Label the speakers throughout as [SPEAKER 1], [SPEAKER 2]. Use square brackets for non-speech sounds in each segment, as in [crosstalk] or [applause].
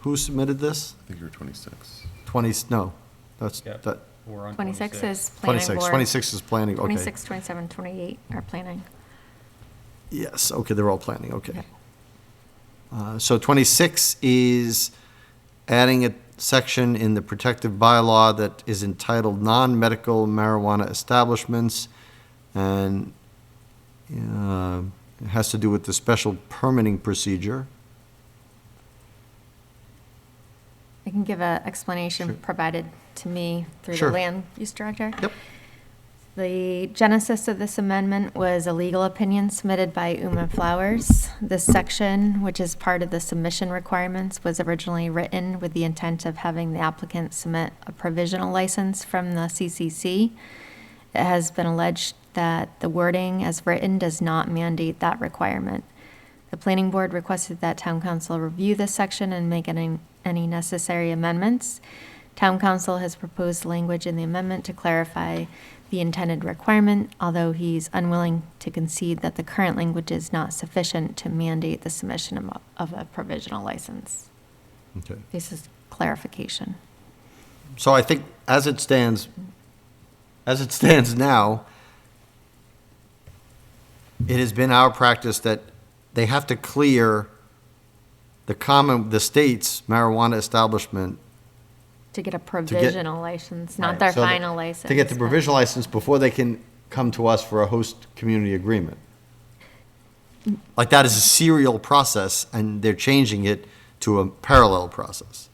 [SPEAKER 1] Who submitted this?
[SPEAKER 2] I think you were 26.
[SPEAKER 1] 20, no, that's,
[SPEAKER 3] Yep.
[SPEAKER 1] that,
[SPEAKER 3] We're on
[SPEAKER 4] 26 is planning
[SPEAKER 1] 26,
[SPEAKER 4] board.
[SPEAKER 1] 26 is planning, okay.
[SPEAKER 4] 26, 27, 28 are planning.
[SPEAKER 1] Yes, okay, they're all planning, okay.
[SPEAKER 4] Yeah.
[SPEAKER 1] Uh, So 26 is adding a section in the protective bylaw that is entitled Non-Medical Marijuana Establishments, and uh, it has to do with the special permitting procedure.
[SPEAKER 4] I can give an explanation
[SPEAKER 1] Sure.
[SPEAKER 4] provided to me through the
[SPEAKER 1] Sure.
[SPEAKER 4] land use director.
[SPEAKER 1] Yep.
[SPEAKER 4] The genesis of this amendment was a legal opinion submitted by Uma Flowers. This section, which is part of the submission requirements, was originally written with the intent of having the applicant submit a provisional license from the CCC. It has been alleged that the wording as written does not mandate that requirement. The planning board requested that town council review this section and make any, any necessary amendments. Town council has proposed language in the amendment to clarify the intended requirement, although he's unwilling to concede that the current language is not sufficient to mandate the submission of a- of a provisional license.
[SPEAKER 1] Okay.
[SPEAKER 4] This is clarification.
[SPEAKER 1] So I think as it stands, as it stands now, it has been our practice that they have to clear the common, the state's marijuana establishment.
[SPEAKER 4] To get a provisional license, not their
[SPEAKER 1] So that-
[SPEAKER 4] final license.
[SPEAKER 1] To get the
[SPEAKER 4] but-
[SPEAKER 1] provisional license before they can come to us for a host community agreement. Like that is a serial process and they're changing it to a parallel process.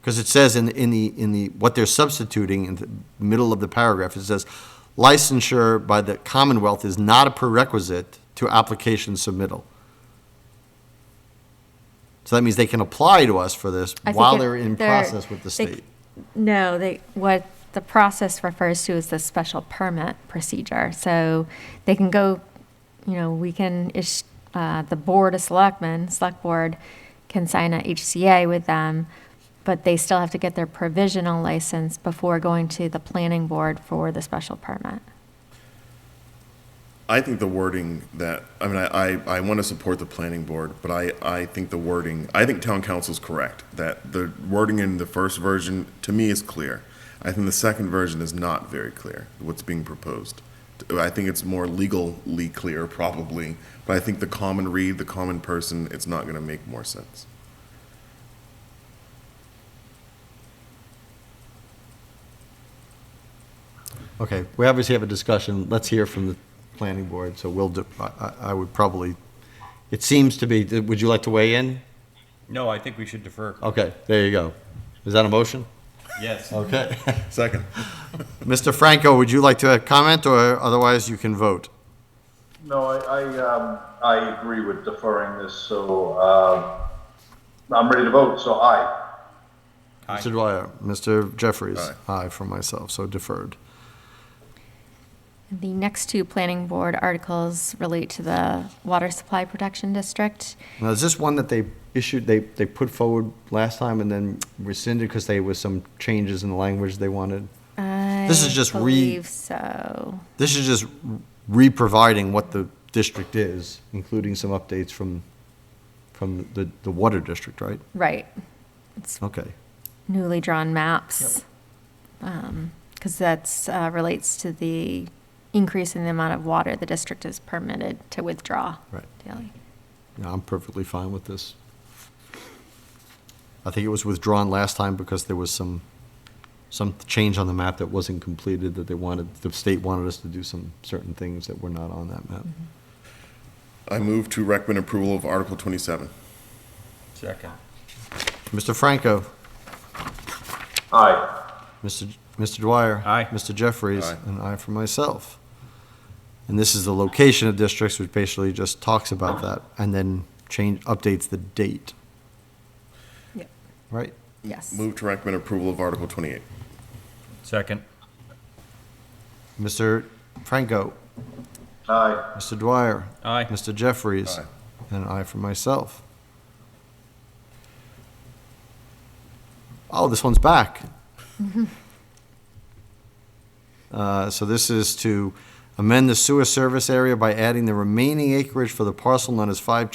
[SPEAKER 1] Because it says in, in the, in the, what they're substituting in the middle of the paragraph, it says licensure by the Commonwealth is not a prerequisite to application submittal. So that means they can apply to us for this
[SPEAKER 4] I think
[SPEAKER 1] while
[SPEAKER 4] it-
[SPEAKER 1] they're in process with the
[SPEAKER 4] they-
[SPEAKER 1] state.
[SPEAKER 4] No, they, what the process refers to is the special permit procedure. So they can go, you know, we can, ish- uh, the board of selectmen, select board can sign a HCA with them, but they still have to get their provisional license before going to the planning board for the special permit.
[SPEAKER 2] I think the wording that, I mean, I, I, I want to support the planning board, but I, I think the wording, I think town council's correct, that the wording in the first version, to me, is clear. I think the second version is not very clear, what's being proposed. I think it's more legally clear, probably, but I think the common read, the common person, it's not going to make more sense.
[SPEAKER 1] Okay, we obviously have a discussion, let's hear from the planning board, so we'll, do- I, I- I would probably, it seems to be, would you like to weigh in?
[SPEAKER 3] No, I think we should defer.
[SPEAKER 1] Okay, there you go. Is that a motion? [laughs]
[SPEAKER 3] Yes.
[SPEAKER 1] Okay.
[SPEAKER 2] Second.
[SPEAKER 1] Mr. Franco, would you like to comment, or otherwise you can vote?
[SPEAKER 5] No, I, I, um, I agree with deferring this, so, um, I'm ready to vote, so aye.
[SPEAKER 3] Aye.
[SPEAKER 1] Mr. Dwyer, Mr. Jeffries?
[SPEAKER 2] Aye.
[SPEAKER 1] Aye for myself, so deferred.
[SPEAKER 4] The next two planning board articles relate to the water supply protection district.
[SPEAKER 1] Now, is this one that they issued, they, they put forward last time and then rescinded because they was some changes in the language they wanted? This is
[SPEAKER 4] I
[SPEAKER 1] just re-
[SPEAKER 4] Believe so.
[SPEAKER 1] This is just re-providing what the district is, including some updates from, from the, the water district, right?
[SPEAKER 4] Right. It's
[SPEAKER 1] Okay.
[SPEAKER 4] newly drawn maps. Because that's, uh, relates to the increase in the amount of water the district is permitted to withdraw.
[SPEAKER 1] Right.
[SPEAKER 4] daily.
[SPEAKER 1] Yeah, I'm perfectly fine with this. I think it was withdrawn last time because there was some, some change on the map that wasn't completed, that they wanted, the state wanted us to do some certain things that were not on that map.
[SPEAKER 2] I move to recommend approval of Article 27.
[SPEAKER 3] Second.
[SPEAKER 1] Mr. Franco?
[SPEAKER 5] Aye.
[SPEAKER 1] Mr. J- Mr. Dwyer.
[SPEAKER 3] Aye.
[SPEAKER 1] Mr. Jeffries.
[SPEAKER 2] Aye.
[SPEAKER 1] And I for myself. And this is the location of districts, which basically just talks about that and then change, updates the date,
[SPEAKER 4] Yep.
[SPEAKER 1] right?
[SPEAKER 4] Yes.
[SPEAKER 2] Move to recommend approval of Article 28.
[SPEAKER 3] Second.
[SPEAKER 1] Mr. Franco,
[SPEAKER 5] Aye.
[SPEAKER 1] Mr. Dwyer.
[SPEAKER 3] Aye.
[SPEAKER 1] Mr. Jeffries.
[SPEAKER 2] Aye.
[SPEAKER 1] And I for myself. Oh, this one's back. Uh, So this is to amend the sewer service area by adding the remaining acreage for the parcel known as 5